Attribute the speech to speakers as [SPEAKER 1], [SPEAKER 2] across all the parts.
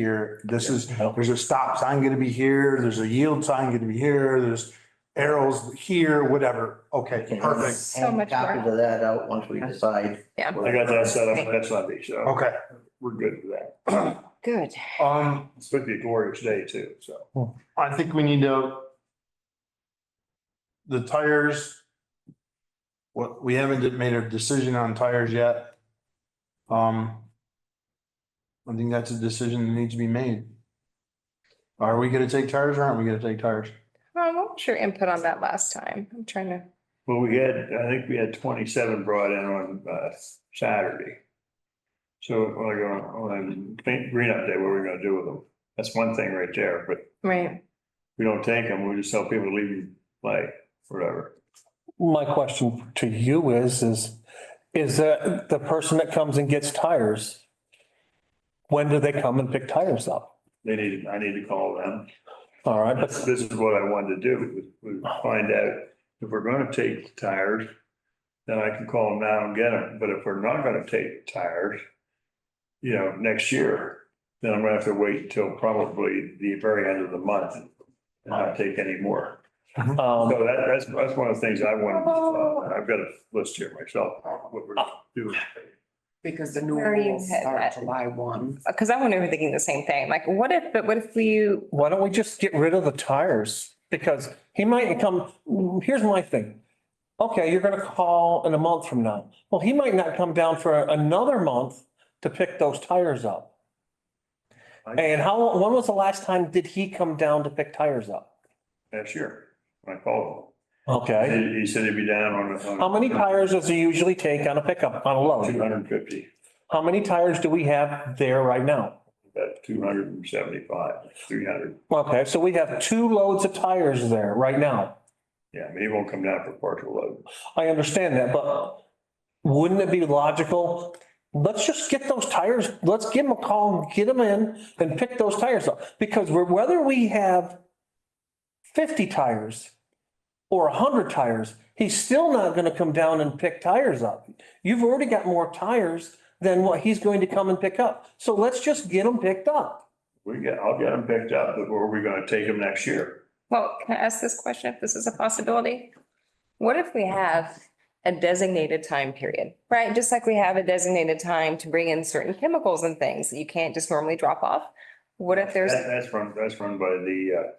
[SPEAKER 1] here, this is,
[SPEAKER 2] Yeah.
[SPEAKER 1] there's a stop sign gonna be here, there's a yield sign gonna be here, there's arrows here, whatever. Okay,
[SPEAKER 2] Okay.
[SPEAKER 1] perfect.
[SPEAKER 3] So
[SPEAKER 2] Hang a
[SPEAKER 3] much
[SPEAKER 2] copy
[SPEAKER 3] work.
[SPEAKER 2] of that out once we decide.
[SPEAKER 3] Yeah.
[SPEAKER 4] I got that set up next Sunday, so
[SPEAKER 1] Okay.
[SPEAKER 4] we're good with that.
[SPEAKER 3] Good.
[SPEAKER 1] Um,
[SPEAKER 4] It's going to be a glorious day too, so.
[SPEAKER 1] Hmm. I think we need to. The tires. What, we haven't made a decision on tires yet. Um. I think that's a decision that needs to be made. Are we gonna take tires or aren't we gonna take tires?
[SPEAKER 3] Um, what was your input on that last time? I'm trying to,
[SPEAKER 4] Well, we had, I think we had twenty-seven brought in on uh, Saturday. So like on, on Green Green Up Day, what are we gonna do with them? That's one thing right there, but
[SPEAKER 3] right,
[SPEAKER 4] we don't take them, we just tell people to leave them like whatever.
[SPEAKER 5] My question to you is, is, is that the person that comes and gets tires, when do they come and pick tires up?
[SPEAKER 4] They need, I need to call them.
[SPEAKER 5] All right, but
[SPEAKER 4] This is what I wanted to do, was was find out if we're gonna take tires, then I can call them now and get them. But if we're not gonna take tires, you know, next year, then I'm gonna have to wait until probably the very end of the month and not take any more. So
[SPEAKER 5] um,
[SPEAKER 4] that, that's, that's one of the things I wanted, uh, I've got a list here myself, what we're doing.
[SPEAKER 6] Because the new
[SPEAKER 3] Where you
[SPEAKER 6] rules
[SPEAKER 3] had
[SPEAKER 6] start
[SPEAKER 3] that.
[SPEAKER 6] July one.
[SPEAKER 3] because I went over thinking the same thing, like, what if, but what if we,
[SPEAKER 5] why don't we just get rid of the tires? Because he might come, here's my thing. Okay, you're gonna call in a month from now. Well, he might not come down for another month to pick those tires up. And how, when was the last time did he come down to pick tires up?
[SPEAKER 4] Next year, when I called
[SPEAKER 5] Okay.
[SPEAKER 4] him. He he said he'd be down on. a- on a-
[SPEAKER 5] How many tires does it usually take on a pickup, on a
[SPEAKER 4] Two
[SPEAKER 5] load?
[SPEAKER 4] hundred and fifty.
[SPEAKER 5] How many tires do we have there right now?
[SPEAKER 4] About two hundred and seventy-five, three hundred,
[SPEAKER 5] Okay, so we have two loads of tires there right now.
[SPEAKER 4] yeah, maybe it won't come down for partial load.
[SPEAKER 5] I understand that, but wouldn't it be logical? Let's just get those tires, let's give them a call, get them in and pick those tires up. Because we're, whether we have fifty tires or hundred tires, he's still not gonna come down and pick tires up. You've already got more tires than what he's going to come and pick up. So let's just get them picked up.
[SPEAKER 4] We get, I'll get them picked up, but where are we gonna take them next year?
[SPEAKER 3] well, can I ask this question, if this is a possibility? What if we have a designated time period, right? Just like we have a designated time to bring in certain chemicals and things that you can't just normally drop off? What if there's,
[SPEAKER 4] That- That's run, that's run by the, uh,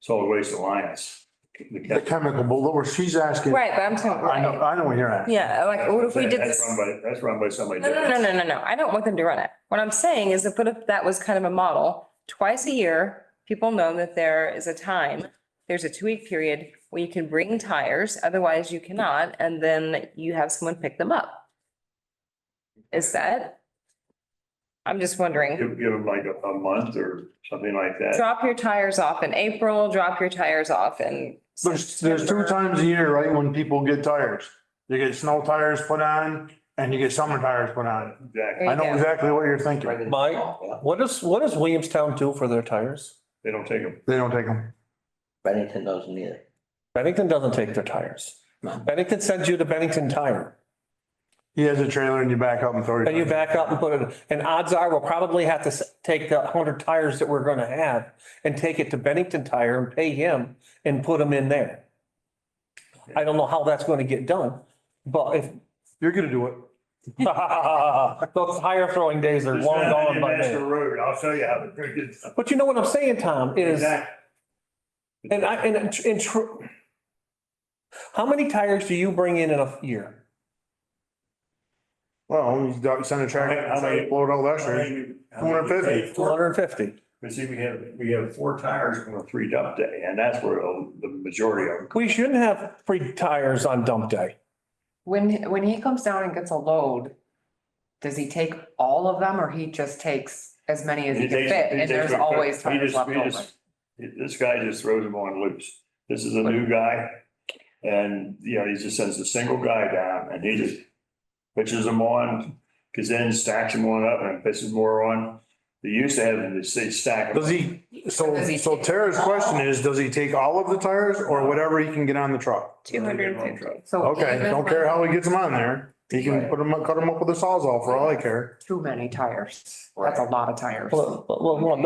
[SPEAKER 4] Solid Waste Alliance. The
[SPEAKER 1] The
[SPEAKER 4] cap-
[SPEAKER 1] chemical bullet, where she's asking.
[SPEAKER 3] right, but I'm talking,
[SPEAKER 1] I know,
[SPEAKER 3] right,
[SPEAKER 1] I know what you're at.
[SPEAKER 3] yeah, like, what if we did
[SPEAKER 4] That's
[SPEAKER 3] this?
[SPEAKER 4] run by, that's run by somebody.
[SPEAKER 3] No, no, no, no, no, no. I don't want them to run it. What I'm saying is that, what if that was kind of a model, twice a year, people know that there is a time, there's a two-week period where you can bring tires, otherwise you cannot, and then you have someone pick them up. Is that? I'm just wondering.
[SPEAKER 4] Give, give them like a, a month or something like that.
[SPEAKER 3] Drop your tires off in April, drop your tires off in.
[SPEAKER 1] There's, there's two
[SPEAKER 3] September.
[SPEAKER 1] times a year, right, when people get tires. You get snow tires put on and you get summer tires put on.
[SPEAKER 4] Exactly,
[SPEAKER 3] There
[SPEAKER 1] I
[SPEAKER 3] you
[SPEAKER 1] know
[SPEAKER 3] go.
[SPEAKER 1] exactly what you're thinking.
[SPEAKER 6] Right.
[SPEAKER 5] Mike, what does, what does Williamstown do for their tires?
[SPEAKER 4] they don't take them.
[SPEAKER 1] They don't take them.
[SPEAKER 2] Bennington doesn't either.
[SPEAKER 5] Bennington doesn't take their tires. Bennington sends you to Bennington Tire.
[SPEAKER 1] He has a trailer and you back up and throw
[SPEAKER 5] And you
[SPEAKER 1] your.
[SPEAKER 5] back up and put it, and odds are we'll probably have to s- take the hundred tires that we're gonna have and take it to Bennington Tire and pay him and put them in there. I don't know how that's gonna get done, but if,
[SPEAKER 1] You're gonna do it.
[SPEAKER 5] those tire throwing days are
[SPEAKER 4] It's
[SPEAKER 5] long
[SPEAKER 4] not
[SPEAKER 5] gone
[SPEAKER 4] any
[SPEAKER 5] by
[SPEAKER 4] Master
[SPEAKER 5] now.
[SPEAKER 4] road, I'll show you how to drink it.
[SPEAKER 5] But you know what I'm saying, Tom, is,
[SPEAKER 4] Exactly.
[SPEAKER 5] and I, and, in tr- in true. How many tires do you bring in in a year?
[SPEAKER 1] Well, he's got, send a tractor,
[SPEAKER 4] How many-
[SPEAKER 1] blow it out last year.
[SPEAKER 4] How many-
[SPEAKER 1] 250.
[SPEAKER 5] Two hundred and fifty.
[SPEAKER 4] But see, we have, we have four tires on a three dump day, and that's where oh, the majority of them.
[SPEAKER 5] We shouldn't have free tires on dump day.
[SPEAKER 6] When, when he comes down and gets a load, does he take all of them or he just takes as many as he can
[SPEAKER 4] takes-
[SPEAKER 6] fit?
[SPEAKER 4] he
[SPEAKER 6] And
[SPEAKER 4] takes
[SPEAKER 6] there's
[SPEAKER 4] them quick.
[SPEAKER 6] always
[SPEAKER 4] He
[SPEAKER 6] tires
[SPEAKER 4] just-
[SPEAKER 6] left
[SPEAKER 4] he
[SPEAKER 6] over?
[SPEAKER 4] just- This guy just throws them on loose. This is a new guy, and, you know, he just sends a single guy down, and he just pitches them on, because then stacks them on up and pitches more on. They used to have them, they say stack them.
[SPEAKER 1] Does he, so,
[SPEAKER 6] Does he
[SPEAKER 1] so
[SPEAKER 6] take-
[SPEAKER 1] Tara's question is, does he take all of the tires or whatever he can get on the truck?
[SPEAKER 3] Two hundred and fifty.
[SPEAKER 6] So
[SPEAKER 1] Okay,
[SPEAKER 6] even
[SPEAKER 1] don't
[SPEAKER 6] when-
[SPEAKER 1] care how he gets them on there. He can put them, cut them up with a sawzall for all I care.
[SPEAKER 3] too many tires. That's a lot of tires.
[SPEAKER 5] Well, well, well,